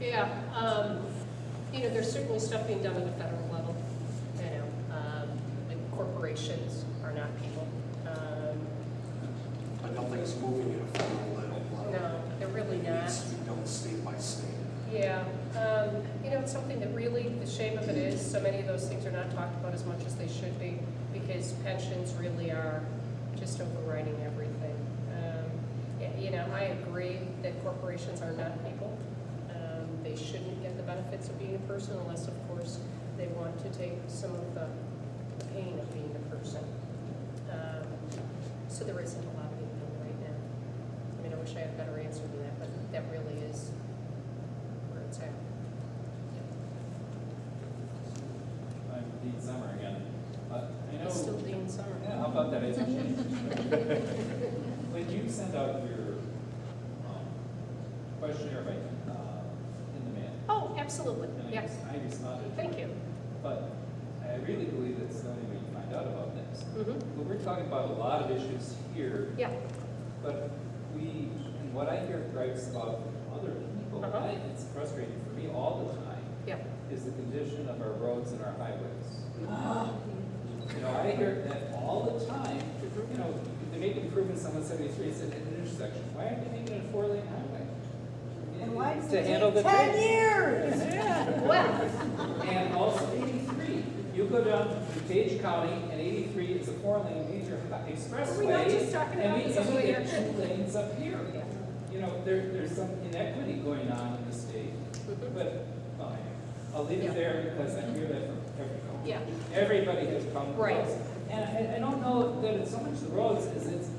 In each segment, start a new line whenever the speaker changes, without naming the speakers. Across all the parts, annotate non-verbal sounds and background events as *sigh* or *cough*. Yeah, um, you know, there's certainly stuff being done at the federal level, you know, um, like corporations are not people. Um,
I don't think it's moving at a uh, federal level.
No, they're really
It
not.
needs to be done state by state.
Yeah, um, you know, it's something that really, the shame of it is, so many of those things are not talked about as much as they should be, because pensions really are just overriding everything. Um, yeah, You know, I agree that corporations are not people. Um, They shouldn't get the benefits of being a person unless, of course, they want to take some of the pain of being a person. Um, So there isn't a lot being done right now. I mean, I wish I had a better answer than that, but that really is where it's at.
I'm Dean Summer again. But I know,
It's still Dean Summer.
yeah, how about that? It's
*laughs*
a change. When you send out your um, questionnaire by, uh, in the mail,
Oh, absolutely,
and I
yes.
res- I responded. to
Thank
it,
you.
But I really believe that's the only way you find out about this.
Mhm.
But we're talking about a lot of issues here
Yeah,
But we, and what I hear gripes about from other people, and I-
Uh-huh.
it's frustrating for me all the time,
yeah.
is the condition of our roads and our highways.
*gasps*
You know, I hear that all the time, you know, they make improvements on one seventy-three, it's at an intersection, why aren't they making it a four-lane highway?
And why does
To
it
handle the
take ten
traffic.
years?
Well,
And also eighty-three, you go down to DuPage County, and eighty-three is a four-lane major hi- expressway.
Are we not just talking about this
And we,
over
and we get
here?
two lanes up here. You know, there, there's some inequity going on in the state, but, fine. I'll leave
Yeah.
it there because I hear that from everyone.
yeah,
Everybody has come
Right.
close. And I, I don't know that it's so much the roads, is it's,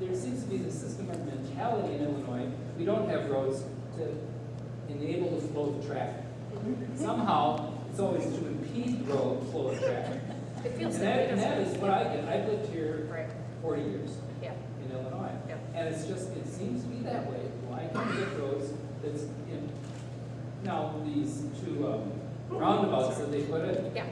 there seems to be the system of mentality in Illinois, we don't have roads to enable the flow of traffic. Somehow, it's always to impede the road flow of traffic.
it
And
feels
that,
like
and that
it.
is what I get, I've lived here
Right,
forty years
yeah,
in Illinois.
Yeah.
And it's just, it seems to be that way, why can't we get roads that's in, now, these two um, roundabouts that they put in,
yeah.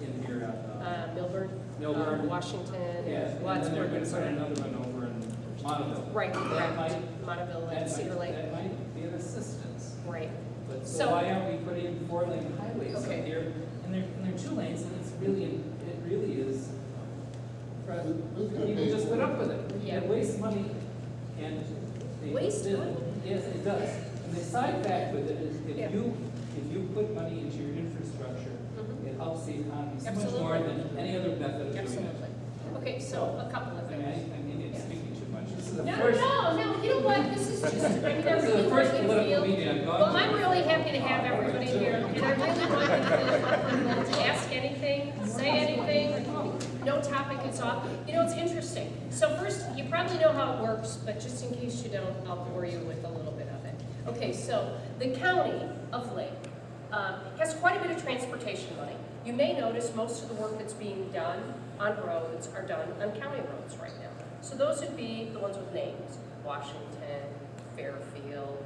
in here on, uh,
Uh, Milburn.
Milburn.
um, Washington. and
yeah, and then they're gonna
Wadsworth.
put another one over in Monadnock.
Right,
That
correct.
might,
Monteville
that
and Cedar
might,
Lake,
that might be an assistance,
right.
but
So-
so why aren't we putting four lane highways up
Okay.
here? And they're, and they're two lanes, and it's really, it really is, um, people just put up with it.
Yeah.
It wastes money, and they.
Waste
did-
money?
Yes, it does, and the side fact with it is,
Yeah.
if you, if you put money into your infrastructure,
Mhm.
it helps the economy so much
Absolutely.
more than any other method of doing it.
Absolutely. Okay, so a couple of
I mean, I,
things.
I mean, it's speaking too much. This is the
No,
first,
no, no, you know what, this is just, I mean, I
this is
really
the
want
first
you to
political
feel
meeting I've gone to.
Well, I'm really happy to have everybody here, and I really want you to *laughs* ask anything, say anything, no topic is off. You know, it's interesting. So first, you probably know how it works, but just in case you don't, I'll bore you with a little bit of it. Okay, so the county of Lake um, has quite a bit of transportation money. You may notice most of the work that's being done on roads are done on county roads right now. So those would be the ones with names, Washington, Fairfield,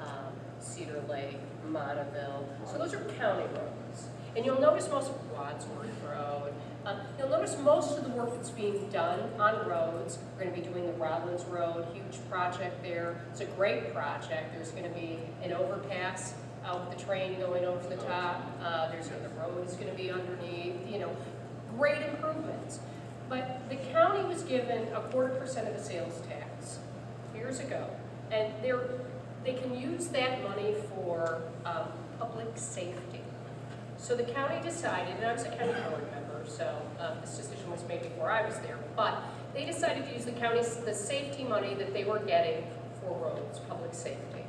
um, Cedar Lake, Monaville. So those are county roads. And you'll notice most of Wadsworth Road. Um, You'll notice most of the work that's being done on roads, we're going to be doing the Rollins Road, huge project there. It's a great project. There's going to be an overpass out with the train going over the top. Uh, There's, the road is going to be underneath, you know, great improvements. But the county was given a quarter percent of the sales tax years ago. And they're, they can use that money for um, public safety. So the county decided, and I was a county board member, so um, this decision was made before I was there, but they decided to use the county's, the safety money that they were getting for roads, public safety.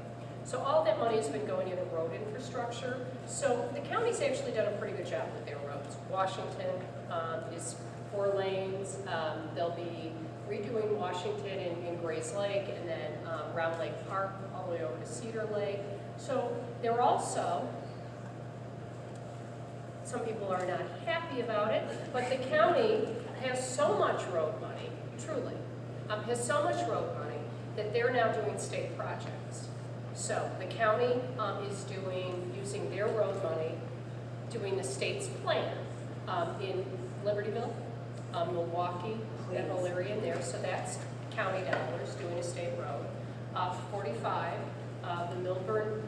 So all that money has been going into road infrastructure. So the county's actually done a pretty good job with their roads. Washington um, is four lanes. Um, They'll be redoing Washington and and Grays Lake and then um, Round Lake Park all the way over to Cedar Lake. So they're also, some people are not happy about it, but the county has so much road money, truly, um, has so much road money that they're now doing state projects. So the county um, is doing, using their road money, doing the state's plan um, in Libertyville, um, Milwaukee, that whole area in there. So that's county dollars doing a state road. Uh, 45, uh, the Milburn